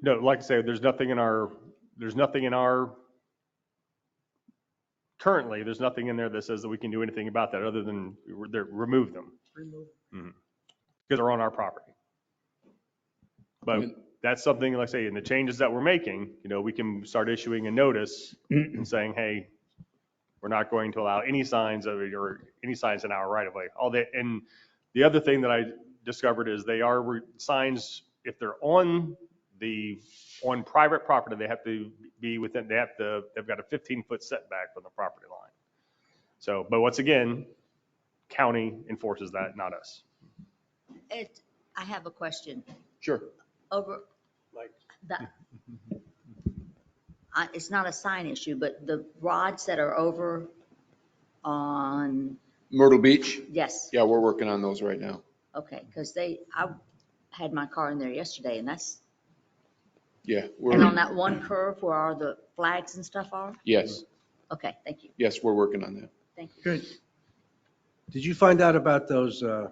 No, like I say, there's nothing in our, there's nothing in our, currently, there's nothing in there that says that we can do anything about that other than re- they're- remove them remove. because they're on our property. But that's something, like I say, in the changes that we're making, you know, we can start issuing a notice and saying, hey, we're not going to allow any signs of, or any signs in our right of way. All that, and the other thing that I discovered is they are re- signs, if they're on the, on private property, they have to be within, they have to, they've got a 15-foot setback from the property line. So, but once again, county enforces that, not us. It, I have a question. Sure. Over Like- the, I- it's not a sign issue, but the rods that are over on, Myrtle Beach? yes, Yeah, we're working on those right now. okay, because they, I had my car in there yesterday and that's, Yeah, and on we're, that one curve where all the flags and stuff are? yes, Okay, thank you, yes, we're working on that. thank you. Good. Did you find out about those, uh,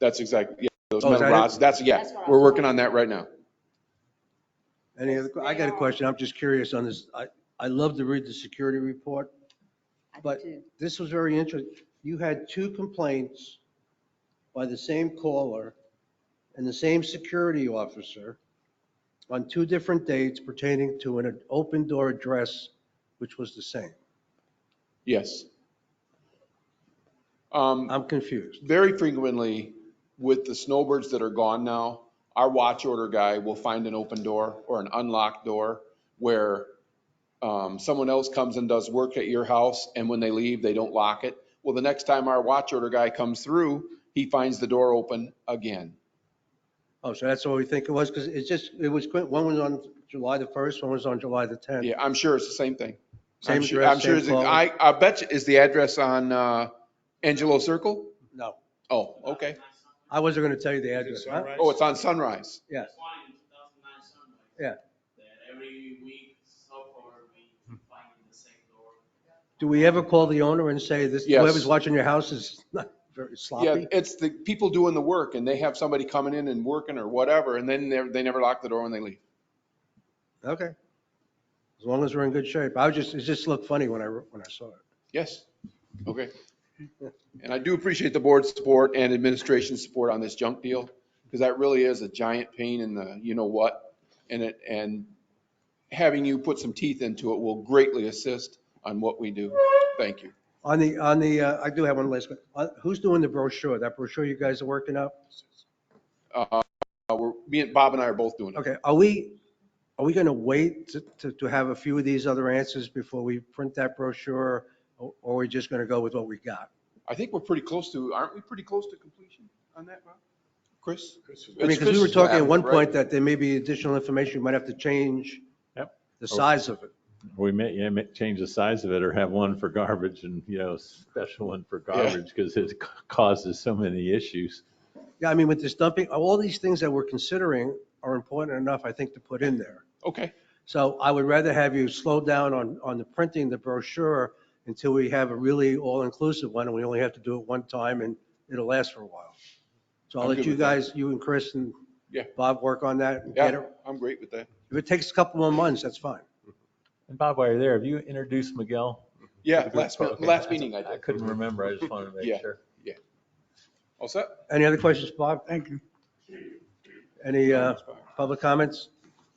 That's exactly, yeah, those Oh, is metal that it? rods, that's, yeah, That's what I we're was- working on that right now. any other, I got a question, I'm just curious on this. I, I love to read the security report. I do But- too. This was very interesting. You had two complaints by the same caller and the same security officer on two different dates pertaining to an open door address, which was the same. Yes. Um, I'm confused. very frequently with the snowbirds that are gone now, our watch order guy will find an open door or an unlocked door where um, someone else comes and does work at your house and when they leave, they don't lock it. Well, the next time our watch order guy comes through, he finds the door open again. Oh, so that's what we think it was, because it's just, it was, quick. one was on July the 1st, one was on July the 10th. Yeah, I'm sure it's the same thing. I'm Same sure- address, I'm sure same it's- caller. I, I bet you, is the address on uh, Angelo Circle? No, Oh, okay. I wasn't going to tell you the address. huh? Oh, it's on Sunrise. Yes. Fine, 2009 sunrise. Yeah. That every week so far, we find the same door. Do we ever call the owner and say this, Yes. whoever's watching your house is not very Yeah, sloppy? it's the people doing the work and they have somebody coming in and working or whatever, and then they're, they never lock the door when they leave. Okay. As long as we're in good shape. I was just, it just looked funny when I, when I saw it. Yes. Okay. And I do appreciate the board's support and administration's support on this junk deal, because that really is a giant pain in the, you know what? And it, and having you put some teeth into it will greatly assist on what we do. Thank you. On the, on the, uh, I do have one last, que- uh, who's doing the brochure? That brochure you guys are working up? Uh, we're, me and Bob and I are both doing it. Okay, are we, are we going to wait to- to, to have a few of these other answers before we print that brochure? Or or are we just going to go with what we got? I think we're pretty close to, aren't we pretty close to completion on that, Bob? Chris? I mean, because we were talking at one point that there may be additional information, we might have to change Yep. the size of it. We may, yeah, may change the size of it or have one for garbage and, you know, special one for Yeah. garbage because it ca- causes so many issues. Yeah, I mean, with this dumping, all these things that we're considering are important enough, I think, to put in there. Okay. So I would rather have you slow down on, on the printing, the brochure, until we have a really all-inclusive one, and we only have to do it one time, and it'll last for a while. So I'll I'm let good you with that. guys, you and Chris and Yeah. Bob work on that. and get Yeah, it. I'm great with that. If it takes a couple more months, that's fine. And Bob, while you're there, have you introduced Miguel? Yeah, last, mi- Okay. last meeting I I did. couldn't remember. I just wanted to Yeah. make sure. All set? Any other questions, Bob? Thank you. Any uh, public comments?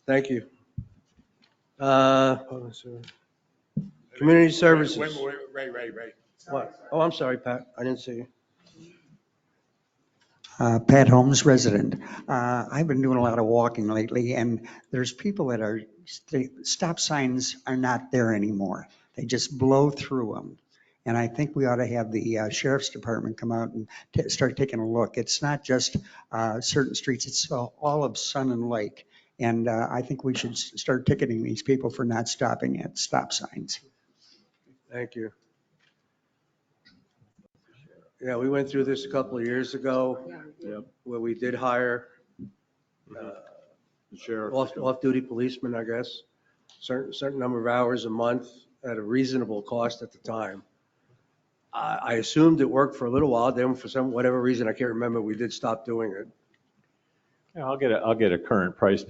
Thank you. Uh, public service. Community services. Wait, wait, wait, right, right. What? Oh, I'm sorry, Pat. I didn't see you. Uh, Pat Holmes, resident. Uh, I've been doing a lot of walking lately, and there's people that are, they- stop signs are not there anymore. They just blow through them. And I think we ought to have the uh, sheriff's department come out and ta- start taking a look. It's not just uh, certain streets, it's all all of Sun and Lake. And uh, I think we should s- start ticketing these people for not stopping at stop signs. Thank you. Yeah, we went through this a couple of years ago where we did hire Sheriff. off- off-duty policemen, I guess, certain, certain number of hours a month at a reasonable cost at the time. I, I assumed it worked for a little while, then for some, whatever reason, I can't remember, we did stop doing it. Yeah, I'll get a, I'll get a current price